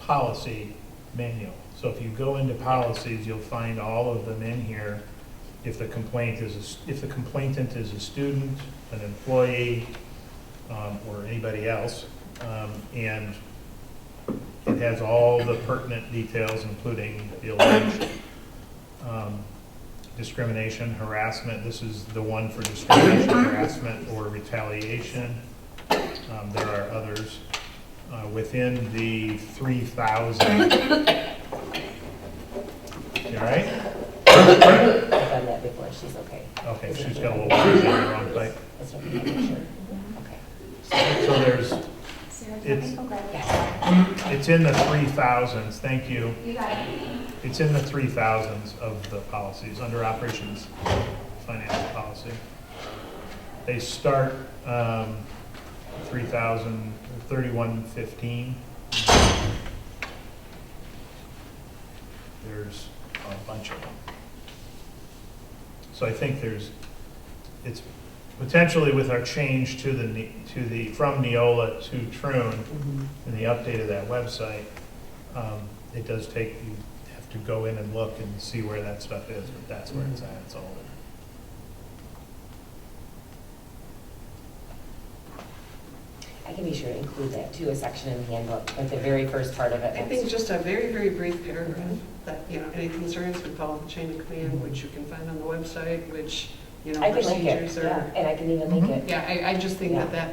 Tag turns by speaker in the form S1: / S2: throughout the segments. S1: policy manual. So if you go into policies, you'll find all of them in here. If the complaint is, a s- if the complainant is a student, an employee, um, or anybody else, um, and it has all the pertinent details, including the alleged um, discrimination, harassment. This is the one for discrimination, harassment, or retaliation. Um, There are others uh, within the 3,000. You all right?
S2: I've done that before, she's okay.
S1: Okay, she's got a little words in her own place.
S2: That's what I'm making sure. Okay.
S1: So there's,
S3: Sarah, can
S1: It's-
S3: I go grab it?
S2: Yes.
S1: it's in the 3,000s, thank you.
S3: You got it.
S1: It's in the 3,000s of the policies, under operations, financial policy. They start um, 3,000, 3115. There's a bunch of them. So I think there's, it's potentially with our change to the, ne- to the, from Neola to Trune,
S4: Mm-hmm.
S2: Mhm.
S1: and the update of that website, um, it does take, you have to go in and look and see where that stuff is, but that's where it's at, it's all there.
S2: I can be sure to include that too, a section in the handbook, like the very first part of it.
S4: I think just a very, very brief paragraph that, you know, any concerns would follow the chain of command, which you can find on the website, which, you know,
S2: I can link it,
S4: procedures
S2: yeah,
S4: are.
S2: and I can even link it.
S4: Yeah, I, I just think that
S2: Yeah.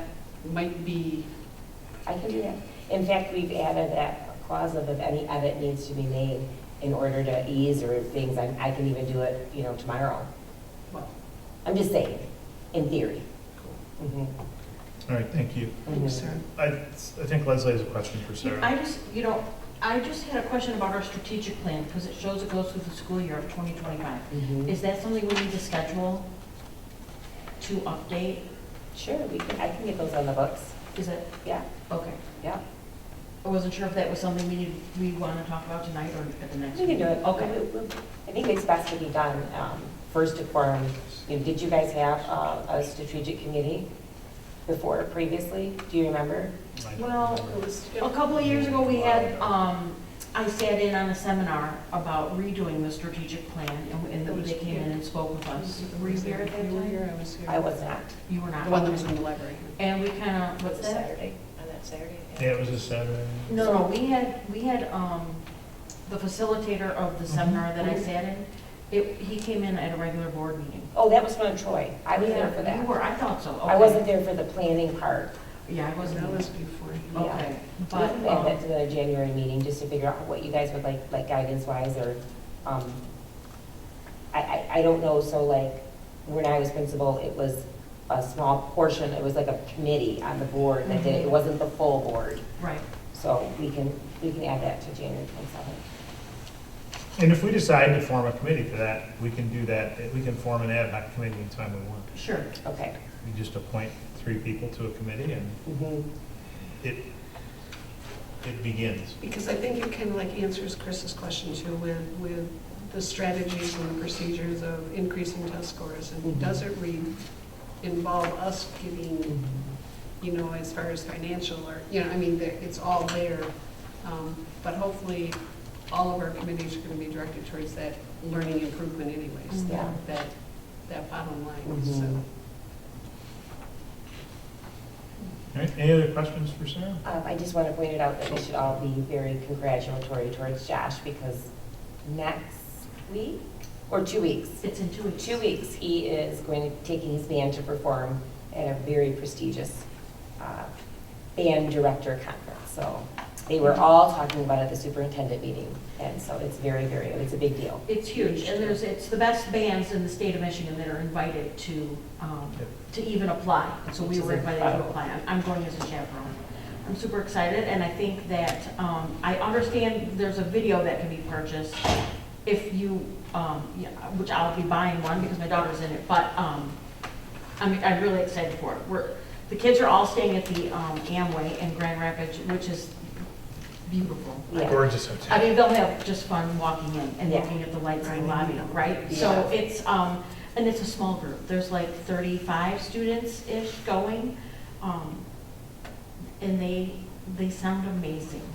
S4: that might be, Mm-hmm.
S2: I can do that. In fact, we've added that clause of if any edit needs to be made in order to ease or things, I, I can even do it, you know, tomorrow.
S4: well,
S2: I'm just saying, in theory.
S4: cool.
S2: Mhm,
S1: All right, thank you.
S4: Thanks,
S2: mhm.
S4: Sarah.
S1: I, I think Leslie has a question for Sarah.
S5: I just, you know, I just had a question about our strategic plan, because it shows it goes through the school year of 2025.
S2: Mhm.
S5: Is that something we need to schedule to update?
S2: Sure, we can, I can get those on the books,
S5: Is it,
S2: yeah,
S5: okay.
S2: yeah.
S5: I wasn't sure if that was something we needed, we want to talk about tonight or at the next
S2: We can
S5: meeting.
S2: do it.
S5: Okay.
S2: I think it's best to be done um, first to form, you know, did you guys have uh, a strategic committee before, previously? Do you remember?
S1: I don't
S5: Well,
S1: remember.
S5: A
S2: Oh.
S5: couple of years ago, we had, um, I sat in on a seminar about redoing the strategic plan, and- and they came in and spoke with us. Were you there at that
S4: You were
S5: time?
S4: here, I was here.
S2: I was not.
S5: You were not.
S4: The one that was in the library.
S5: And we kind of, what's that?
S6: on that Saturday.
S1: Yeah, it was a Saturday.
S5: No, no, we had, we had, um, the facilitator of
S2: Mm-hmm.
S5: the seminar that I sat in, it, he came in at a regular board meeting.
S2: Oh, that was from Troy. I was there for
S5: You
S2: that.
S5: were, I thought so, okay.
S2: I wasn't there for the planning part.
S5: Yeah, I wasn't,
S4: That was
S5: either.
S4: before.
S2: yeah.
S5: okay,
S2: We can
S5: but,
S2: add
S5: um,
S2: that to the January meeting, just to figure out what you guys would like, like guidance-wise, or, um, I, I, I don't know, so like, when I was principal, it was a small portion, it was like a committee on the board that did it, it
S5: Mm-hmm.
S2: wasn't the full board.
S5: right,
S2: So we can, we can add that to January twenty-seventh.
S1: And if we decide to form a committee for that, we can do that, we can form an ad hoc committee anytime we want.
S5: sure,
S2: Okay.
S1: We just appoint three people to a committee and
S2: Mhm.
S1: it, it begins.
S4: Because I think it kind of like answers Chris's question too with, with the strategies and the procedures of increasing test scores.
S2: Mhm.
S4: And does it re, involve us
S2: Mm-hmm.
S4: giving you know, as far as financial or, you know, I mean, there- it's all there. Um, But hopefully, all of our committees are going to be directed towards that learning improvement anyways,
S2: Yeah.
S4: that, that bottom line,
S2: Mhm.
S4: so.
S1: All right, any other questions for Sarah?
S2: Um, I just want to point it out that we should all be very congratulatory towards Josh, because next week, or two weeks,
S5: it's in two weeks.
S2: two weeks, he is going to, taking his band to perform at a very prestigious uh, band director conference. So they were all talking about it at the superintendent meeting, and so it's very, very, it's a big deal.
S5: It's huge, and there's, it's the best bands in the state of Michigan that are invited to, um,
S1: Yep.
S5: to even apply. So
S2: Which
S5: we
S2: is
S5: were invited to
S2: incredible.
S5: apply. I'm- I'm going as a chaperone. I'm super excited, and I think that, um, I understand there's a video that can be purchased if you, um, yeah, which I'll be buying one because my daughter's in it, but, um, I'm, I'm really excited for it. We're, the kids are all staying at the, um, Amway in Grand Rapids, which is beautiful.
S2: Yeah.
S1: Gorgeous
S5: I
S1: hotel.
S5: mean, they'll have just fun walking in and
S2: Yeah.
S5: looking at the lights in the
S4: Right.
S5: lobby, right? So it's, um, and it's a small group, there's like thirty-five students-ish going, um, and they, they sound amazing.